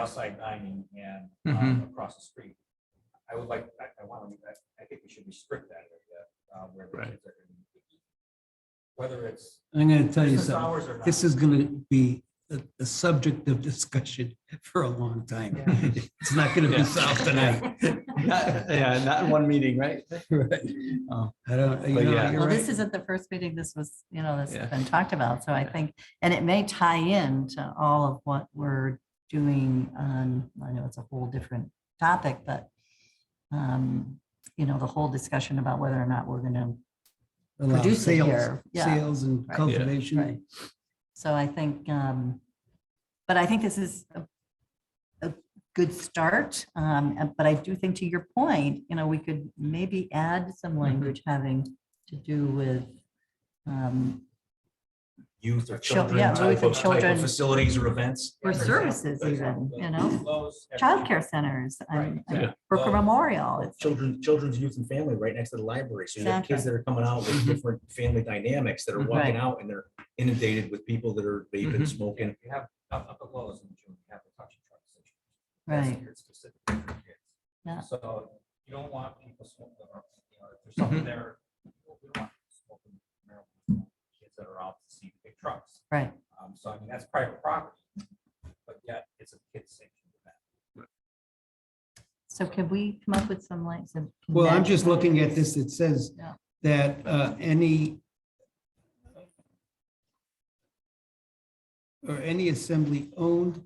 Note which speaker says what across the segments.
Speaker 1: outside dining and
Speaker 2: Mhm.
Speaker 3: Mm-hmm.
Speaker 1: um, across the street. I would like, I, I want to, I, I think we should restrict that area, uh, where the
Speaker 2: Right.
Speaker 1: kids are gonna be eating. Whether it's
Speaker 3: I'm gonna tell you
Speaker 1: business
Speaker 3: something.
Speaker 1: hours or not.
Speaker 3: This is gonna be a, a subject of discussion for a long time. It's not gonna
Speaker 2: Yeah.
Speaker 3: be solved tonight.
Speaker 2: Not- Yeah, not in one meeting, right? Oh,
Speaker 3: I don't, you
Speaker 2: But
Speaker 3: know,
Speaker 2: yeah.
Speaker 3: you're
Speaker 4: Well, this
Speaker 3: right.
Speaker 4: isn't the first meeting. This was, you know, this
Speaker 2: Yeah.
Speaker 4: has been talked about. So I
Speaker 2: Yeah.
Speaker 4: think, and it may tie in to all of what we're doing on, I know it's a whole different topic, but um, you know, the whole discussion about whether or not we're gonna,
Speaker 3: Allow
Speaker 4: produce it
Speaker 3: sales-
Speaker 4: here, yeah.
Speaker 3: Sales and
Speaker 4: Right.
Speaker 2: Yeah.
Speaker 3: cultivation.
Speaker 4: Right. so I think, um, but I think this is a, a good start. Um, and- but I do think to your point, you know, we could maybe add
Speaker 2: Mm-hmm.
Speaker 4: some language having to do with um,
Speaker 1: Youth or
Speaker 4: Chil-
Speaker 1: children.
Speaker 4: yeah,
Speaker 1: type
Speaker 4: youth and
Speaker 1: of- type of
Speaker 4: children.
Speaker 1: Facilities or events. For
Speaker 4: Or
Speaker 1: example,
Speaker 4: services
Speaker 1: for
Speaker 4: even,
Speaker 1: example,
Speaker 4: you know?
Speaker 1: Lowe's and-
Speaker 4: childcare centers and
Speaker 2: Right.
Speaker 4: and
Speaker 2: Yeah.
Speaker 4: Brooker
Speaker 1: Well,
Speaker 4: Memorial. It's
Speaker 5: children, children's youth and family right next to the library. So you have kids
Speaker 4: Exactly.
Speaker 5: that are coming out with
Speaker 2: Mhm.
Speaker 5: different family dynamics that are
Speaker 2: Mhm.
Speaker 5: walking
Speaker 4: Right.
Speaker 5: out and they're inundated with people that are vaping,
Speaker 2: Mhm.
Speaker 5: smoking.
Speaker 1: You have up, up at Lowe's in June, you have the touch and truck session. That's
Speaker 4: Right.
Speaker 1: geared specifically for kids.
Speaker 4: Yeah.
Speaker 1: So you don't want people smoking, or, you know, if
Speaker 3: Mm-hmm.
Speaker 1: there's something there. we don't want people smoking marijuana. Kids that are out to see the big trucks.
Speaker 4: Right.
Speaker 1: Um, so I mean, that's private property, but yet it's a kid's sanctioned event.
Speaker 4: So can we come up with some like some?
Speaker 3: Well, I'm
Speaker 4: convention-
Speaker 3: just looking at this. It says
Speaker 4: Yeah.
Speaker 3: that uh, any or any assembly owned,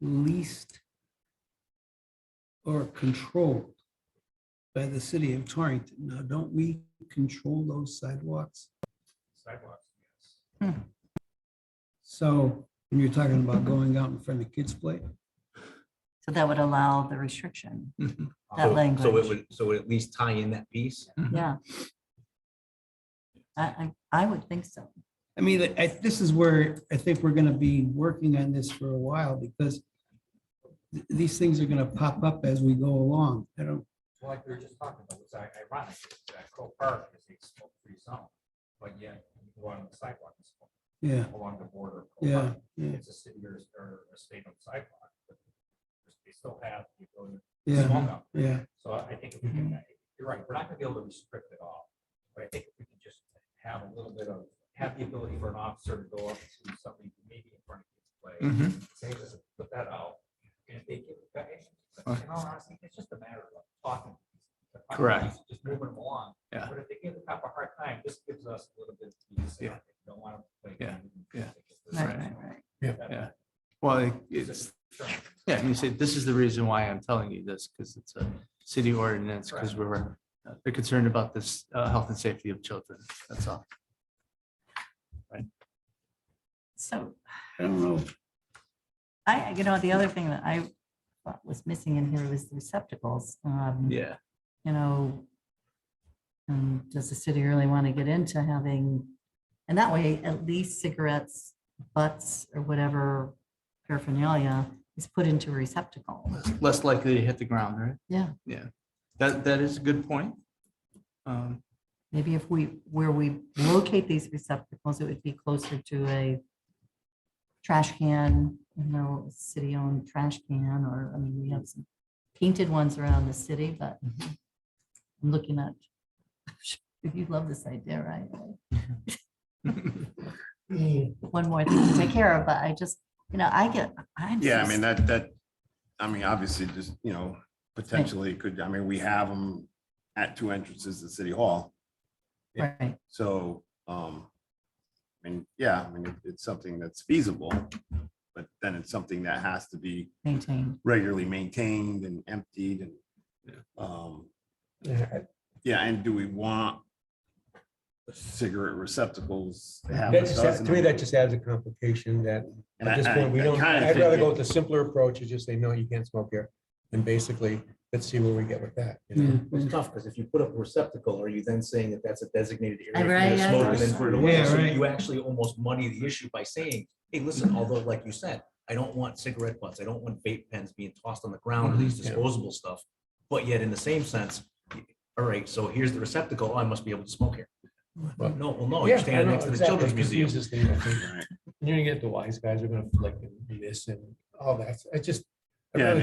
Speaker 3: leased or controlled by the city of Torrington. Now, don't we control those sidewalks?
Speaker 1: Sidewalks, yes.
Speaker 3: So when you're talking about going out in front of kids' play,
Speaker 4: So that would allow the restriction,
Speaker 2: mhm,
Speaker 1: Um,
Speaker 4: That
Speaker 5: So- So
Speaker 4: language.
Speaker 5: it would, so it at least tie in that piece.
Speaker 2: mhm.
Speaker 4: yeah. I, I, I would think so.
Speaker 3: I mean, I, this is where I think we're gonna be working on this for a while because th- these things are gonna pop up as we go along. I don't,
Speaker 1: Well, like we were just talking about, it's ironic is that Crow Park is a smoke-free zone, but yet you go out on the sidewalk and smoke
Speaker 3: yeah,
Speaker 1: along the border. of Crow
Speaker 3: yeah,
Speaker 1: Park.
Speaker 3: yeah,
Speaker 1: It's a city or, or a state on sidewalk, but they still have the ability to
Speaker 3: yeah,
Speaker 1: smoke out.
Speaker 3: yeah.
Speaker 1: So I I think if we
Speaker 2: Mm-hmm.
Speaker 1: can, you're right, we're not gonna be able to restrict it all, but I think if we can just have a little bit of, have the ability for an officer to go up to somebody maybe in front of his play,
Speaker 2: Mhm.
Speaker 1: say, listen, put that out. And if they give it back, in all honesty, it's just a matter of talking.
Speaker 2: Uh-huh. Correct.
Speaker 1: Just moving them along.
Speaker 2: Yeah.
Speaker 1: But if they give the cop a hard time, this gives us a little bit. of peace.
Speaker 2: Yeah.
Speaker 1: Don't want to play.
Speaker 2: Yeah, yeah.
Speaker 4: Right, right, right.
Speaker 2: Well, it- it's, yeah, you say, this is the reason why I'm telling you this, because it's a city ordinance, because we're, uh, they're concerned about this, uh, health and safety of children, that's all.
Speaker 4: So
Speaker 3: I don't know.
Speaker 4: I, you know, the other thing that I thought was missing in here was the receptacles. Um,
Speaker 2: Yeah.
Speaker 4: you know, um, does the city really want to get into having, and that way, at least cigarettes, butts, or whatever paraphernalia is put into a receptacle.
Speaker 2: Less likely to hit the ground, right?
Speaker 4: Yeah.
Speaker 2: Yeah, that, that is a good point. Um,
Speaker 4: Maybe if we, where we locate these receptacles, it would be closer to a trash can, you know, city-owned trash can, or, I mean, we have some painted ones around the city, but I'm looking at, you love this idea, right? one more thing to take care of, but I just, you know, I get, I'm.
Speaker 6: Yeah, I mean,
Speaker 4: just-
Speaker 6: that, that, I mean, obviously, just, you know, potentially could, I mean, we have them at two entrances to City Hall.
Speaker 4: Right,
Speaker 6: So, um, I mean, yeah, I mean, it- it's something that's feasible, but then it's something that has to be
Speaker 4: maintained.
Speaker 6: regularly maintained and emptied and, um, yeah, and do we want cigarette receptacles? to have a
Speaker 7: That just adds-
Speaker 6: dozen
Speaker 7: To me,
Speaker 6: of
Speaker 7: that
Speaker 6: them?
Speaker 7: just adds a complication that
Speaker 6: And
Speaker 7: at this
Speaker 6: I- I-
Speaker 7: point, we
Speaker 6: I
Speaker 7: don't,
Speaker 6: kinda
Speaker 7: I'd rather
Speaker 6: think
Speaker 7: go
Speaker 6: it-
Speaker 7: with the simpler approach and just say, no, you can't smoke here. And basically, let's see where we get with that. you know?
Speaker 3: Yeah.
Speaker 5: It's tough because if you put up a receptacle, are you then saying that that's a designated area?
Speaker 4: Right,
Speaker 5: for you to
Speaker 4: yeah,
Speaker 5: smoke
Speaker 4: that's
Speaker 5: and then put it
Speaker 3: right.
Speaker 5: away?
Speaker 3: Yeah,
Speaker 5: So
Speaker 3: right.
Speaker 5: You actually almost muddy the issue by saying, hey,
Speaker 7: Mm-hmm.
Speaker 5: listen, although like you said, I don't want cigarette butts, I don't want vape pens being tossed on the ground or these
Speaker 7: Mhm. Yeah.
Speaker 5: disposable stuff. But yet in the same sense, all right, so here's the receptacle, Oh, I must be able to smoke here.
Speaker 7: Well,
Speaker 5: No, well, no,
Speaker 7: Yeah,
Speaker 5: Oh, you're
Speaker 7: I
Speaker 5: standing
Speaker 7: know,
Speaker 5: next to the
Speaker 7: exactly.
Speaker 5: children's
Speaker 7: It
Speaker 5: museum.
Speaker 7: confuses things, I think.
Speaker 6: Right.
Speaker 7: You're gonna get the wise guys are gonna flick and do this and all that. I just,
Speaker 6: Yeah,